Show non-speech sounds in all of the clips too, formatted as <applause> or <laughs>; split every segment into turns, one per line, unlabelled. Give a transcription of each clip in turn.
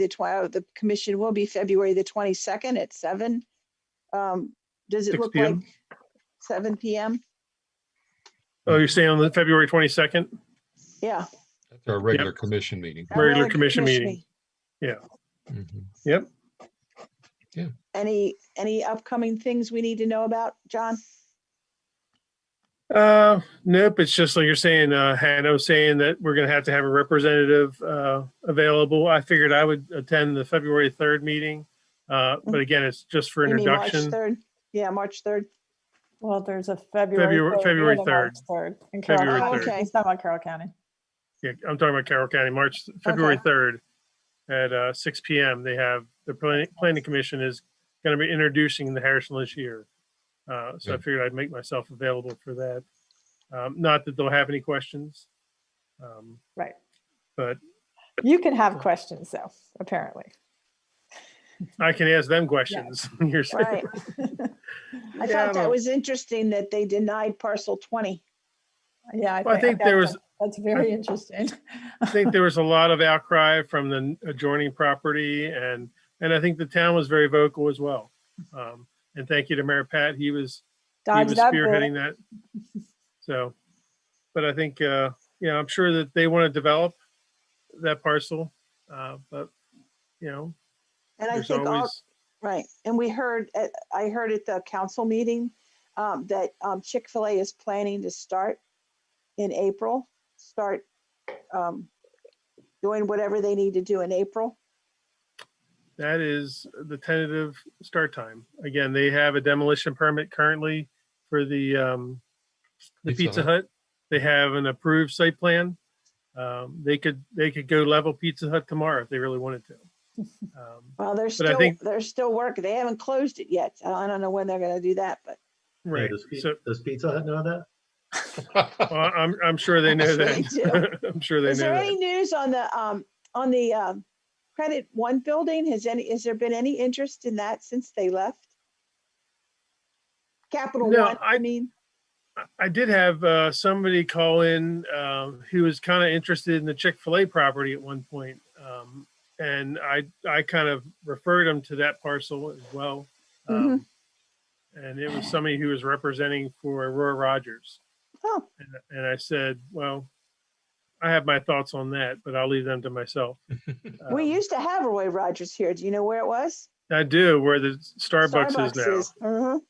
the twi- the commission will be February the twenty-second at seven. Um, does it
6
look like
PM?
seven PM?
Oh, you're saying on the February 22nd?
Yeah.
That's our regular commission meeting.
our
Regular commission meeting.
Mhm. <laughs>
Any, any upcoming things we need to know about, John?
Uh, nope, it's just like you're saying, uh, Hanno saying that we're gonna have to have a representative, uh, available. I figured I would attend the February third meeting. Uh, but again, it's just for
Mm. You mean March 3rd?
introduction.
Yeah, March
<laughs>
third.
Well, there's a February.
February-
third
February
and a March Third. in Carroll
February
County.
third. Okay.
It's not about Carroll County.
Yeah, I'm talking about Carroll County, March, February
Okay.
third at, uh, six P M. They have, the planning, planning commission is gonna be introducing the Harrison Year. Uh, so I
Good.
figured I'd make myself available for that. Um, not that they'll have any questions. Um,
Right.
But
You can have questions though, apparently.
I can ask them questions. <laughs> You're saying-
Right. <laughs> I
Yeah,
thought that
well-
was interesting that they denied parcel twenty.
Yeah.
Well, I think there
that's-
was-
That's very interesting. <laughs>
I think there was a lot of outcry from the adjoining property and, and I think the town was very vocal as well. Um, and thank you to Mayor Pat. He was, he was
Dodged that bullet.
spearheading that. So, but I think, uh, yeah, I'm sure that they want to develop that parcel. Uh, but, you know,
And I
there's
think all,
always,
right. And we heard, at- I heard at the council meeting um, that um, Chick-fil-A is planning to start in April, start um, doing whatever they need to do in April.
that is the tentative start time. Again, they have a demolition permit currently for the, um, the
Pizza
Pizza
Hut.
Hut. They have an approved site plan. Um, they could, they could go level Pizza Hut tomorrow if they really wanted
<laughs>
to. Um,
Well, they're
I
still,
think-
they're still working. They haven't closed it yet. I don't- I don't know when they're gonna do that, but
Hey,
Right,
Does Pi-
so,
does Pizza Hut know that?
well, I'm, I'm sure they know
Sure they
that. <laughs> I'm sure they
is there any
know
news on the, um, on the, um, Credit One building? Has any, has there been any interest in that since they left? Capital
No,
One, I
I-
mean,
that. I did have, uh, somebody call in, um, who was kind of interested in the Chick-fil-A property at one point. Um, and I, I kind of referred him to that parcel as well. Um,
Mm-hmm.
And it was somebody who was representing for Aurora Rogers.
oh,
And, and I said, well, I have my thoughts on that, but I'll leave them to myself. Um,
we used to have Roy Rogers here. Do you know where it was?
I do, where the Starbucks, is now.
Mhm.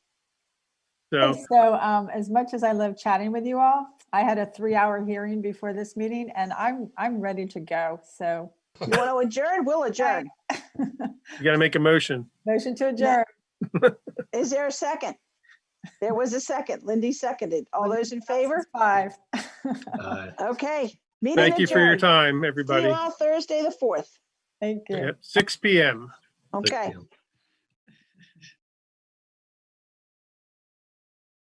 So
And So um, as much as I love chatting with you all, I had a three-hour hearing before this meeting and I'm, I'm ready to go. So
You wanna adjourn? We'll adjourn.
you got to make a motion.
motion to adjourn.
Is there a second? There was a second. Lindy seconded. All those in favor?
Five. <laughs>
Uh,
Okay. meeting
Thank you for your
adjourned.
time,
See you
everybody.
all Thursday, the fourth.
Thank you.
Yep, 6 p.m.
like,
Okay.
you know,